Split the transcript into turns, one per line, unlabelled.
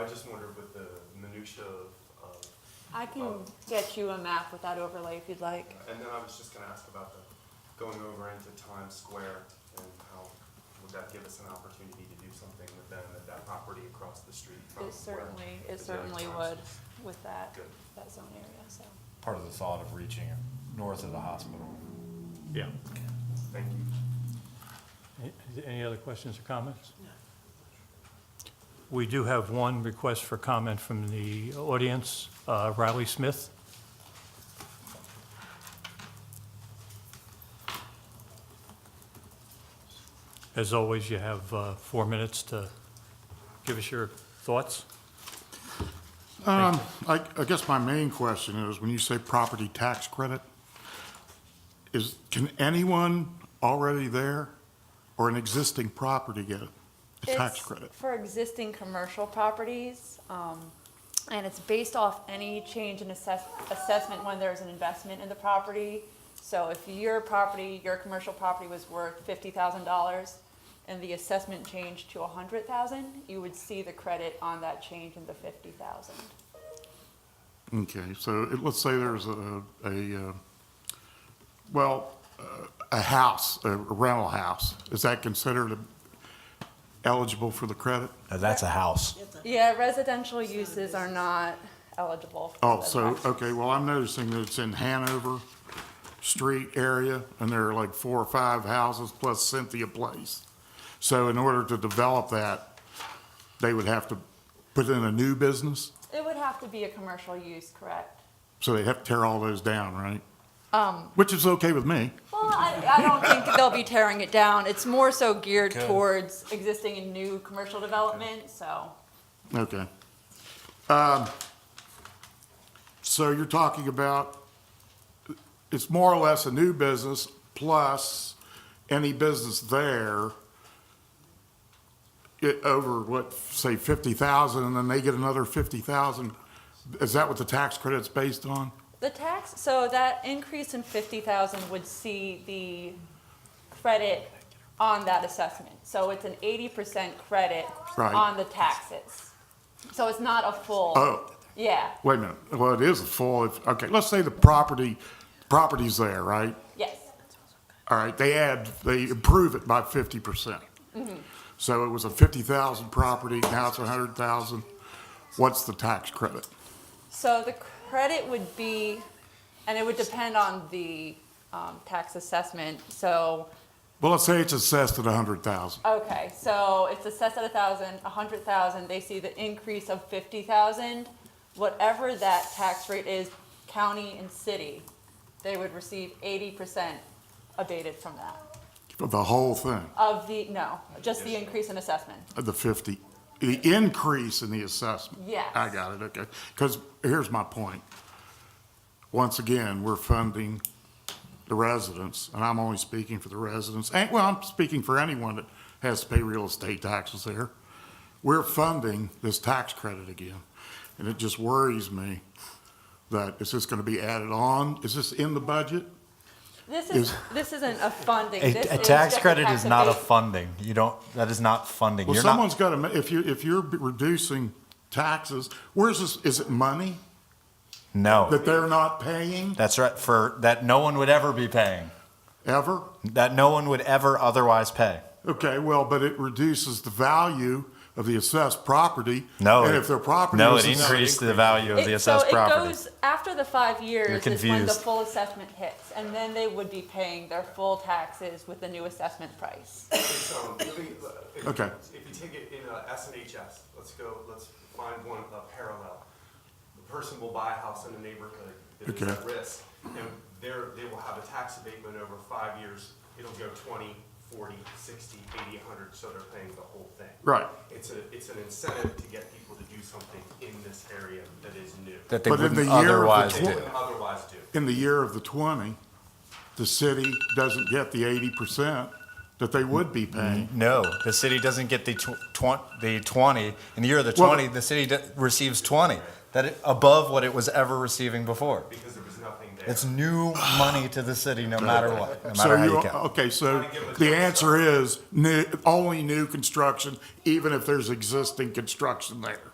I just wondered with the minutia of, of,
I can get you a map with that overlay if you'd like.
and then I was just gonna ask about the going over into Times Square and how would that give us an opportunity to do something with them at that property across the street from
It
where?
certainly,
the
it certainly
Times
would
is.
with that,
Good.
that zone area, so.
part of the thought of reaching north of the hospital.
Yeah.
Thank you.
Any- Any other questions or comments? We do have one request for comment from the audience, uh, Riley Smith. As always, you have uh, four minutes to give us your thoughts.
Um, I, I guess my main question is, when you say property tax credit, is, can anyone already there or an existing property get a tax
It's
credit?
For existing commercial properties, um, and it's based off any change in assess, assessment when there's an investment in the property. So if your property, your commercial property was worth fifty thousand dollars and the assessment changed to a hundred thousand, you would see the credit on that change in the fifty thousand.
Okay, so it- let's say there's a, a, uh, well, uh, a house, a rental house, is that considered eligible for the credit?
that's a house.
Yeah, residential uses are not eligible. for
Oh,
the
so,
tax.
okay, well, I'm noticing that it's in Hanover Street area, and there are like four or five houses plus Cynthia Place. So in order to develop that, they would have to put in a new business?
It would have to be a commercial use, correct?
So they have to tear all those down, right? Um. Which is okay with me.
Well, I, I don't think they'll be tearing it down. It's more so geared towards existing and new commercial development, so.
Okay. Um, so you're talking about, it's more or less a new business plus any business there it, over what, say fifty thousand, and then they get another fifty thousand. Is that what the tax credit's based on?
The tax, so that increase in fifty thousand would see the credit on that assessment. So it's an eighty percent credit
Right.
on the taxes. So it's not a full,
Oh,
yeah,
wait a minute. Well, it is a full, if- okay, let's say the property, property's there, right?
yes,
All right, they add, they improve it by fifty percent. So it was a fifty thousand property, now it's a hundred thousand. What's the tax credit?
So the credit would be, and it would depend on the um, tax assessment. So,
Well, let's say it's assessed at a hundred thousand.
okay, so it's assessed at a thousand, a hundred thousand, they see the increase of fifty thousand. Whatever that tax rate is, county and city, they would receive eighty percent abated from that.
for the whole thing,
Of the, no, just the increase in assessment.
of the fifty, the increase in the assessment.
Yes.
I got it, okay. Because here's my point. Once again, we're funding the residents, and I'm only speaking for the residents, and, well, I'm speaking for anyone that has to pay real estate taxes there. We're funding this tax credit again, and it just worries me that is this going to be added on? Is this in the budget?
This is,
Is-
this isn't a funding,
A,
this is
a
just
tax
a
credit
tax
is not a
abate-
funding. You don't, that is not funding.
Well,
You're
someone's
not,
got to, if you, if you're reducing taxes, where's this, is it money
no.
that they're not paying
That's right, for, that no one would ever be paying,
ever?
that no one would ever otherwise pay.
Okay, well, but it reduces the value of the assessed property.
No.
And
it-
if their property
No,
is
it
assessed-
increased the value of the
It- so
assessed
it
property.
goes After the five years
You're
is when the
confused.
full assessment hits, and then they would be paying their full taxes with the new assessment price.
So, if we- if-
Okay.
If you take it in uh, S and HS, let's go, let's find one uh, parallel. The person will buy a house in a neighborhood that is
Okay.
at risk, and they're, they will have a tax abatement over five years. It'll go 20, 40, 60, 80, 100, so they're paying the whole thing.
Right.
It's a, it's an incentive to get people to do something in this area that is new.
That they
But in
wouldn't
the year of the
otherwise
They
tw-
do.
wouldn't otherwise do.
In the year of the twenty, the city doesn't get the eighty percent that they would be
Mm-hmm.
paying.
No, the city doesn't get the tw- tw- the twenty. In the year of the
Well-
twenty, the city d- receives twenty. That it, above what it was ever receiving before.
Because there was nothing there.
It's new money to the city, no matter what, no
So
matter how
you,
you count.
okay, so
Gotta give it
the
to us.
answer is new, only new construction, even if there's existing construction there.